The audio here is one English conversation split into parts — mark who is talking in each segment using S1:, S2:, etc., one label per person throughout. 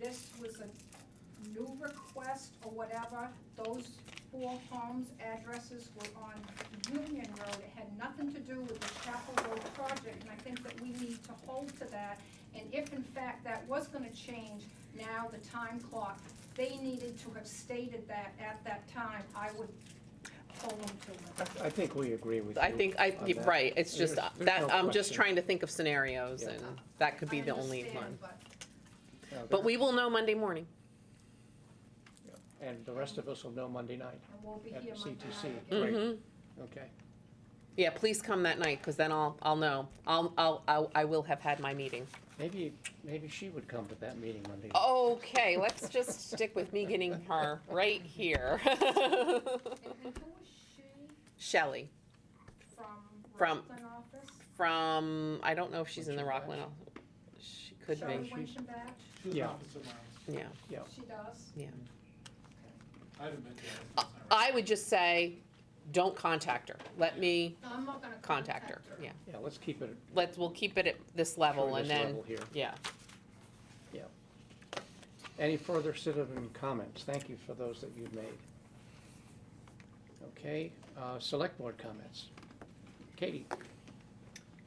S1: this was a new request or whatever, those four homes' addresses were on Union Road. It had nothing to do with the Chapel Road project, and I think that we need to hold to that. And if in fact that was gonna change, now the time clock, they needed to have stated that at that time. I would hold them to it.
S2: I- I think we agree with you.
S3: I think, I,
S2: on
S3: you're
S2: that.
S3: right, it's
S2: There's-
S3: just, uh,
S2: there's no
S3: that, I'm just
S2: question.
S3: trying to think of scenarios,
S2: Yeah.
S3: and that could be
S1: I
S3: the only
S1: understand,
S3: one.
S1: but-
S2: Yeah,
S3: But we will know Monday morning.
S2: And the rest of us will know Monday night,
S1: And we'll be
S2: At
S1: here Monday
S2: CTC.
S1: night again.
S2: Great.
S3: hmm
S2: okay?
S3: Yeah, please come that night, because then I'll, I'll know. I'll, I'll, I'll- I will have had my meeting.
S2: Maybe, maybe she would come to that meeting Monday.
S3: Oh.
S2: night.
S3: Okay, let's just stick with me getting her right here.
S1: And and who was she
S3: Shelley,
S1: from
S3: From-
S1: Rockland office?
S3: from, I don't know if she's in the
S2: Winchendon
S3: Rockland, she could
S1: Shelley
S3: be,
S1: Winchembatch,
S4: She was
S2: Yeah.
S4: opposite mine.
S3: yeah.
S1: she does.
S4: I haven't been to her since I was-
S3: I would just say, don't contact her. Let me
S1: No, I'm not gonna
S3: contact her, yeah.
S2: Yeah, let's keep it.
S3: Let's, we'll keep it at this
S2: sure,
S3: level
S2: this
S3: and then,
S2: level Here.
S3: yeah.
S2: Any further citizen comments? Thank you for those that you've made. Okay, uh, select board comments. Katie?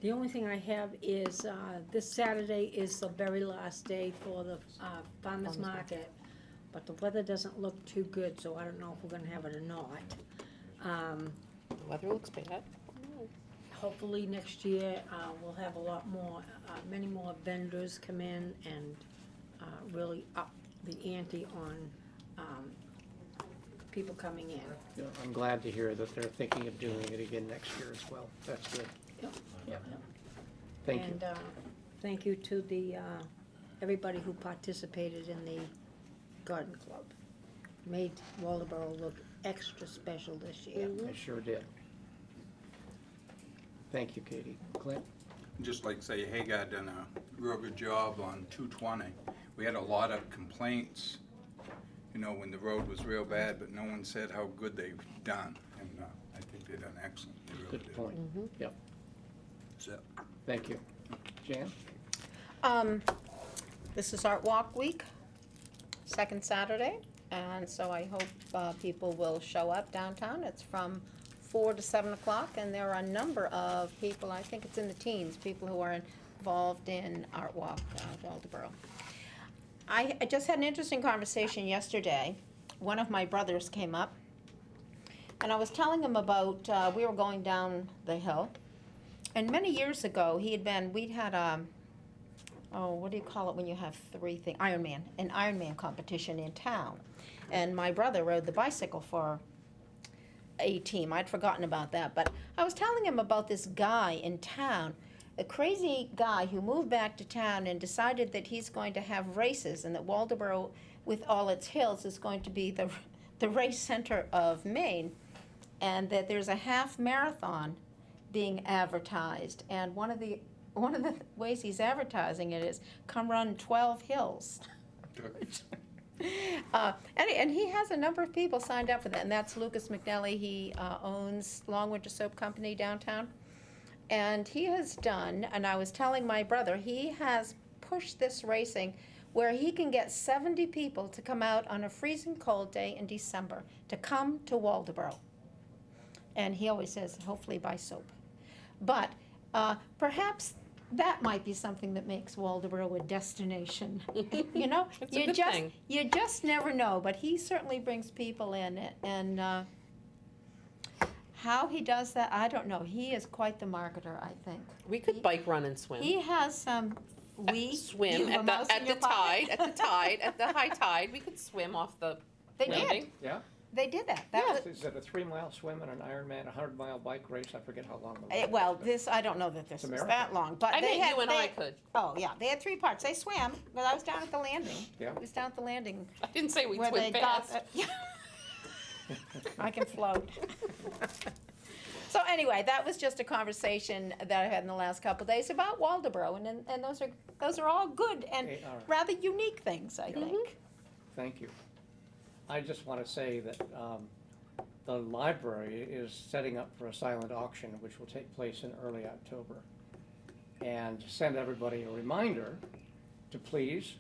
S5: The only thing I have is, uh, this Saturday is the very last day for the, uh,
S3: Farmers
S5: farmer's market. But the weather doesn't look too good, so I don't know if we're gonna have it or not. Um,
S3: The weather looks bad.
S5: hopefully next year, uh, we'll have a lot more, uh, many more vendors come in and, uh, really up the ante on, um, people coming in.
S2: I'm glad to hear that they're thinking of doing it again next year as well. That's good.
S5: Yep.
S2: Yeah. Thank you.
S5: And uh, thank you to the, uh, everybody who participated in the garden club. Made Waldeboro look extra special this year.
S2: I sure did. Thank you, Katie. Clint?
S6: just like say Hagar done a real good job on two twenty. We had a lot of complaints, you know, when the road was real bad, but no one said how good they've done. And uh, I think they done excellent. They really
S2: Good
S6: did.
S2: point. Yep,
S6: So-
S2: thank you. Jan?
S7: Um, this is Art Walk Week, second Saturday, and so I hope, uh, people will show up downtown. It's from four to seven o'clock, and there are a number of people, I think it's in the teens, people who are involved in Art Walk, uh, Waldeboro. I, I just had an interesting conversation yesterday. One of my brothers came up, and I was telling him about, uh, we were going down the hill. And many years ago, he had been, we'd had, um, oh, what do you call it when you have three things? Ironman, an Ironman competition in town. And my brother rode the bicycle for a team. I'd forgotten about that, but I was telling him about this guy in town, a crazy guy who moved back to town and decided that he's going to have races and that Waldeboro, with all its hills, is going to be the the race center of Maine, and that there's a half marathon being advertised, and one of the one of the ways he's advertising it is come run 12 hills. Uh, and, and he has a number of people signed up for that, and that's Lucas McNally. He uh, owns Long Winter Soap Company downtown. And he has done, and I was telling my brother, he has pushed this racing where he can get 70 people to come out on a freezing cold day in December to come to Waldeboro. And he always says, hopefully by soap. But uh, perhaps that might be something that makes Waldeboro a destination. you know,
S3: It's a
S7: you
S3: good
S7: just
S3: thing.
S7: you just never know. But he certainly brings people in, and uh, how he does that, I don't know. He is quite the marketer, I think.
S3: We could bike, run and swim.
S7: He has some.
S3: Uh,
S7: We you
S3: Swim
S7: have a
S3: at
S7: mouse
S3: the,
S7: in
S3: at the
S7: your pocket?
S3: tide, at the tide, at the high tide. We could swim off the
S7: They did.
S3: landing.
S2: Yeah?
S7: They did that. That was
S2: Is it a three-mile swim and an Ironman, a hundred-mile bike race? I forget how long the
S7: Eh,
S2: run
S7: well,
S2: is, but-
S7: this I don't know that this
S2: It's a
S7: was that
S2: marathon.
S7: long, but
S3: I
S7: they
S3: think
S7: had,
S3: you and
S7: they-
S3: I could.
S7: Oh yeah, they had three parts. They swam, but I was down at the landing.
S2: Yeah.
S7: I was down at the landing
S3: I didn't say we
S7: where they
S3: swim fast.
S7: got. I can float. so anyway, that was just a conversation that I had in the last couple of days about Waldeboro, and, and and those are those are all good and
S2: They are.
S7: rather unique things, I think.
S2: eh, Thank you. I just want to say that um, the library is setting up for a silent auction, which will take place in early October. And send everybody a reminder to please